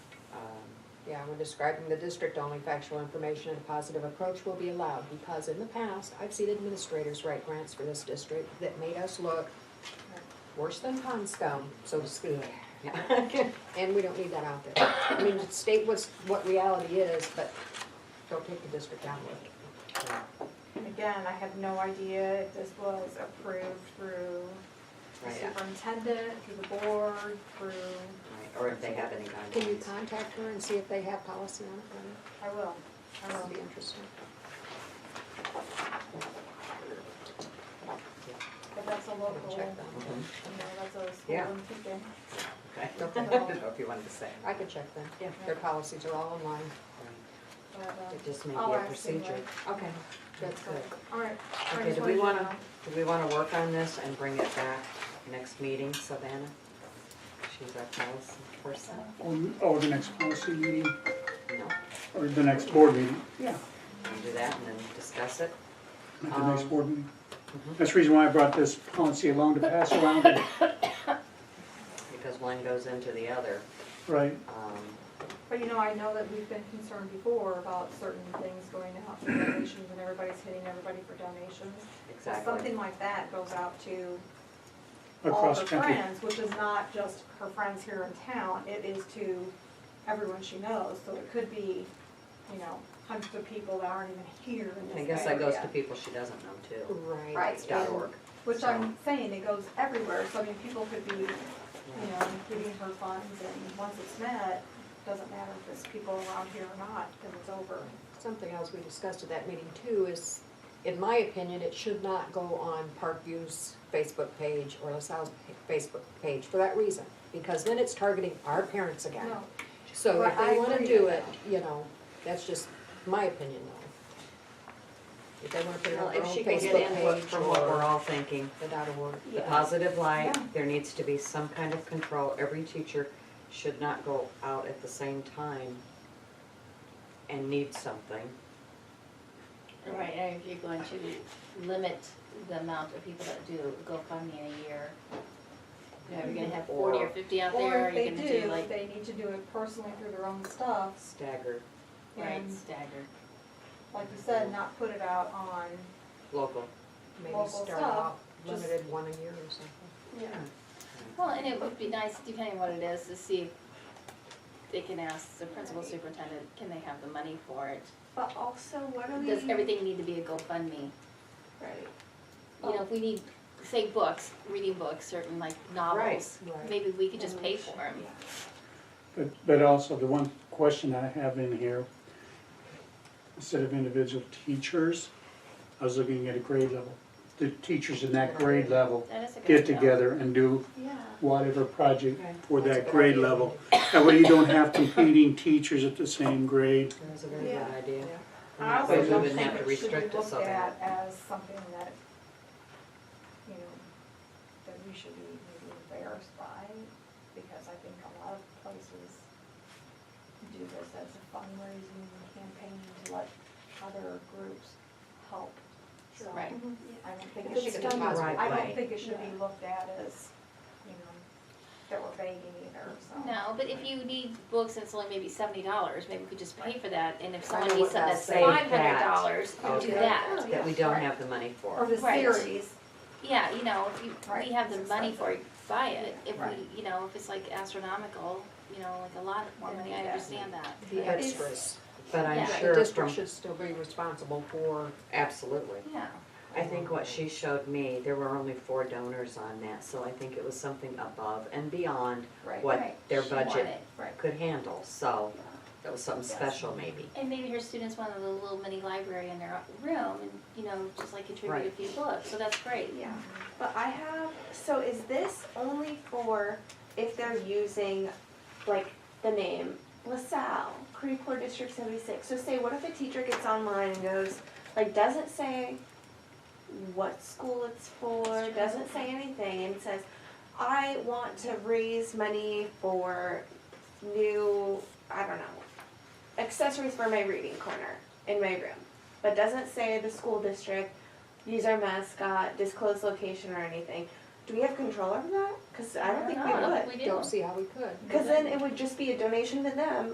Um, Yeah, when describing the district, only factual information and a positive approach will be allowed, because in the past, I've seen administrators write grants for this district that made us look worse than pond scum, so to speak. And we don't need that out there. I mean, state what's, what reality is, but don't take the district down with it. Again, I have no idea if this was approved through the Right, superintendent, through the board, through, right, or if they have any Can you guidelines. contact her and see if they have policy on it, Brenda? I will, I That will. would be interesting. But that's a local, you know, Check that. Mhm, that's a school Yeah. in Pekin. Okay, I Okay. don't know if you wanted to say. I could check them. Their policies are all online. But, uh, It just may be I'll a ask procedure. anyway. Okay. Good, so, good. All right. I Okay, just do we wanted want to to, do we want to work on this and bring it back next meeting, Savannah? She's our policy person. Or- Or oh, the next policy meeting, No, or the next board meeting, yeah, we do that and then discuss it. at the next Um, board meeting. mhm. That's the reason why I brought this policy along to pass around, and- Because one goes into the other. right? Um, But you know, I know that we've been concerned before about certain things going out for donations and everybody's hitting everybody for donations. So Exactly. Something like that goes out to all Across her the country. friends, which is not just her friends here in town, it is to everyone she knows. So it could be, you know, hundreds of people that aren't even here in this I guess that goes to area. people she doesn't know too. Right. Right. It's dot org. Which I'm saying, it goes everywhere, so I mean, people could be, you know, giving her funds and once it's met, doesn't matter if it's people around here or not, because it's over. Something else we discussed at that meeting too is, in my opinion, it should not go on Parkview's Facebook page or LaSalle's pa- Facebook page for that reason. Because then it's targeting our parents again. No, So if Well, I they wanna agree do with it, you know, that's just my opinion though. If they wanna put it Well, on their if own she can get input Facebook page from what we're or all thinking, without a word. the Yeah. positive light, Yeah. there needs to be some kind of control. Every teacher should not go out at the same time and need something. Right, and if you're going to limit the amount of people that do GoFundMe in a year, you know, if you're gonna have forty or fifty out Or there, if you're they gonna do do, like, they need to do it personally through their own stuff, Staggered, right, and staggered. like you said, not put it out on, local. Maybe Local start stuff, off just- limited one a year or something. Yeah. Well, and it would be nice, depending what it is, to see if they can ask the principal superintendent, can they have the money for it? but also, what are we? Does everything need to be a GoFundMe? Right. You know, if we need, say books, reading books, certain like novels, Right. maybe we could just pay for them. But, but also, the one question I have in here, instead of individual teachers, I was looking at a grade level. The teachers in that grade level That is a good. get deal. together and do Yeah, whatever project Okay. for That's a that good grade idea. level. That way you don't have competing teachers at the same grade. That was a very good Yeah. idea. Yeah. And I that way also we don't wouldn't have think to it should be restrict it looked so bad. at as something that, you know, that we should be maybe embarrassed by, because I think a lot of places do this as a fundraising campaign to let other groups help. So, Right. I don't think If it it's should done be, the right I way. don't think it should be looked at as, you know, that we're begging either, so. No, but if you need books and it's only maybe seventy dollars, maybe we could just pay for that, and if I know someone needs what something that's that's saying. five hundred dollars, you do Okay. that. That we Yeah, don't Oh, right. have the money Or for. the Right. series, Yeah, you know, if you, Right, we have the it's money for expensive. it, buy it, if Right. we, you know, if it's like astronomical, you know, like a lot more Then money, we I do that. understand that. The It's- extras. But Yeah. I'm The The sure district from, should still be responsible for absolutely. Yeah, I think what she showed me, there were only four donors on that, so I think it was something above and beyond right, what Right. their She wanted budget it. right. could handle, so that was something special maybe. And maybe her students want a little little mini library in their room, and, you know, just like contribute a Right. few books, so that's great. Yeah, but I have, so is this only for if they're using, like, the name LaSalle, Creve Coeur District seventy-six? So say, what if a teacher gets online and goes, like, doesn't say what school it's for, doesn't say anything, and says, I want to raise money for new, I don't know, accessories for my reading corner in my room, but doesn't say the school district, use our mascot, disclose location or anything. Do we have control over that? Because I don't think No, I don't we think would. we do. Don't see how we could. Because then it would just be a donation to them